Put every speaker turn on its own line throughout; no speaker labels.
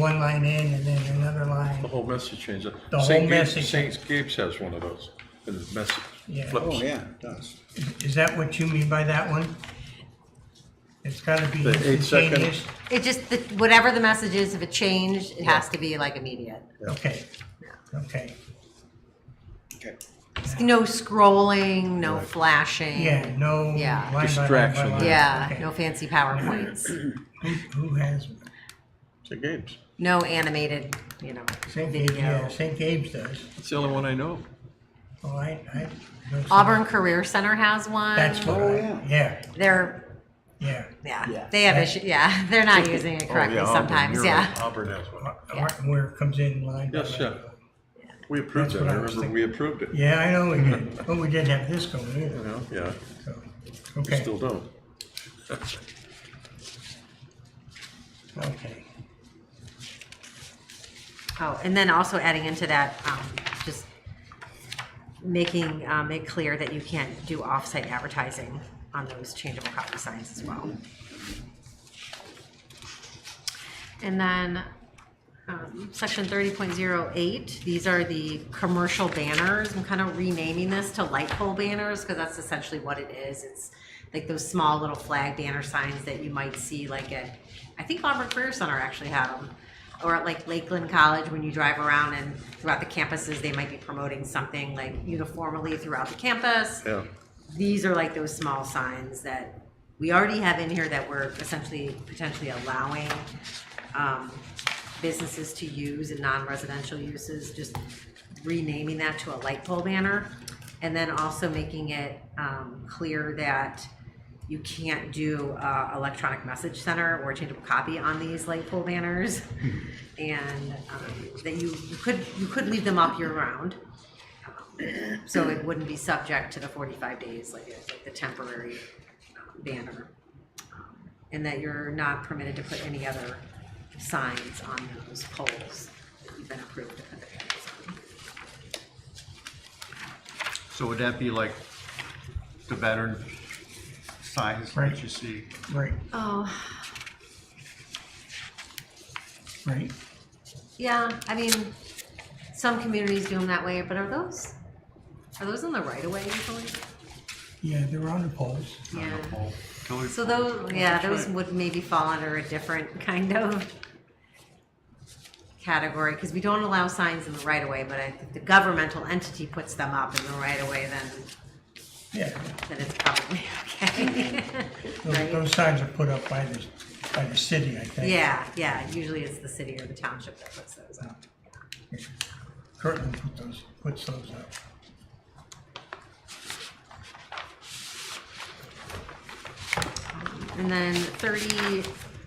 one line in and then another line.
The whole message changes.
The whole
Saint Gabe-
message.
Saint Gabe's has one of those, and the message
Yeah.
flips.
Oh, yeah, it does.
Is that what you mean by that one? It's gotta be
The eight second-
instantaneous?
It just, the- whatever the message is, if it changed, it has to be like immediate.
Okay, okay,
Okay.
No scrolling, no flashing.
yeah, no. line
Yeah.
by line by
Distraction.
line.
Yeah,
Okay.
no fancy PowerPoints,
Who- Who has,
Saint Gabe's.
no animated, you know,
St. Gabe's, yeah,
video.
St. Gabe's does.
It's the only one I know.
Oh, I, I. don't see-
Auburn Career Center has one.
That's what
Oh,
I,
yeah.
yeah,
They're,
yeah.
yeah,
Yeah.
they have issues, yeah, they're not using it
Oh,
correctly
yeah, Auburn,
sometimes,
you're
yeah.
right, Auburn has one.
Where it comes in line. by
Yes,
line.
yeah. We approved
That's
it.
what
I
I was
remember we approved it, you
Yeah, I know we did, but we didn't have this going either,
know, yeah,
so,
we
okay,
still don't.
okay.
Oh, and then also adding into that, um, just making, um, it clear that you can't do off-site advertising on those changeable copy signs as well. And then, um, section thirty point zero eight, these are the commercial banners. I'm kind of renaming this to light pole banners because that's essentially what it is. It's like those small little flag banner signs that you might see like at, I think Auburn Career Center actually had them. Or at like Lakeland College, when you drive around and throughout the campuses, they might be promoting something like uniformly throughout the campus
Yeah,
these are like those small signs that we already have in here that we're essentially potentially allowing um, businesses to use in non-residential uses, just renaming that to a light pole banner. And then also making it um, clear that you can't do uh, electronic message center or changeable copy on these light pole banners. And um, that you you could, you could leave them up year-round. So it wouldn't be subject to the forty-five days, like, it's like the temporary um, banner. Um, And that you're not permitted to put any other signs on those poles that you've been approved to put the banners on.
So would that be like the veteran signs
Right.
that you see?
Right,
Oh,
right.
yeah, I mean, some communities do them that way, but are those, are those on the right of way usually?
Yeah, they're on the poles.
Yeah,
Oh, Kelly?
so those, yeah, those would maybe fall under a different kind of category, because we don't allow signs in the right of way, but I think the governmental entity puts them up in the right of way, then
Yeah,
then it's probably okay.
those,
Right?
those signs are put up by the, by the city, I think.
Yeah, yeah, usually it's the city or the township that puts those up.
Kirtland put those, puts those up.
And then 30,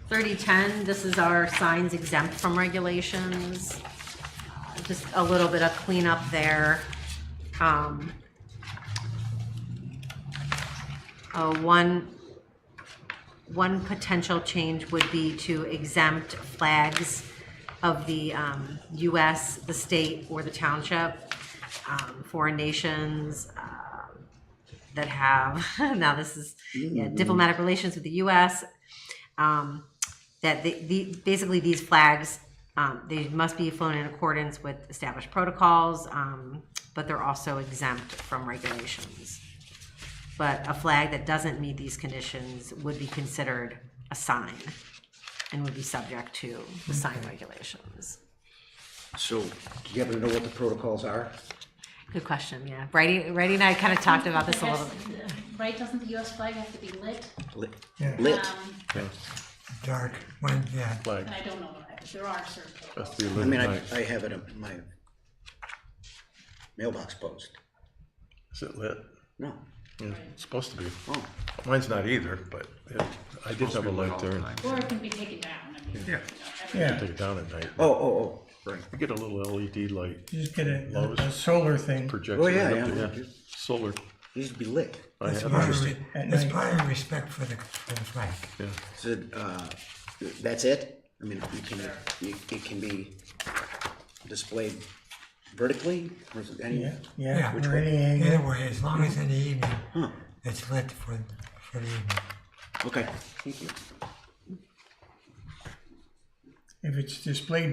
3010, this is our signs exempt from regulations. Uh, Just a little bit of cleanup there. Um, uh, One, one potential change would be to exempt flags of the um, US, the state, or the township, um, foreign nations, uh, that have now this is yeah, diplomatic relations with the U.S. Um, that the, the basically these flags um, they must be flown in accordance with established protocols, um, but they're also exempt from regulations. But a flag that doesn't meet these conditions would be considered a sign and would be subject to the sign regulations.
So, do you happen to know what the protocols are?
Good question. Yeah, Brady, Brady and I kind of talked about this a little. bit.
Yes, Right, doesn't the US flag have to be lit?
Lit.
Yeah.
Lit.
Um,
Dark, when, yeah.
like,
and I don't know, I- there are certain.
that's the
I mean, I,
illuminate.
I have it in my mailbox post.
Is it lit?
No.
Yeah, It's supposed to be.
Oh,
Mine's not either, but yeah, I did have a light there. and
Or it can be taken down, I mean, you know, everything.
Yeah,
Take it down at night.
oh, oh, oh, right.
You get a little LED light
just get a,
Lowe's.
a solar thing.
projector.
Oh, yeah,
up
yeah.
there, Solar.
Needs to be lit.
I
It's
have
part
it.
of, re-
At
it's
night.
part of respect for the, for the flag.
Is it, uh, that's it? I mean, you can, you- it can be displayed vertically, or is it any?
Yeah, yeah,
Which
or
way?
any angle.
Either way, as long as in the evening, it's lit for, for the evening.
Okay, thank you.
If it's displayed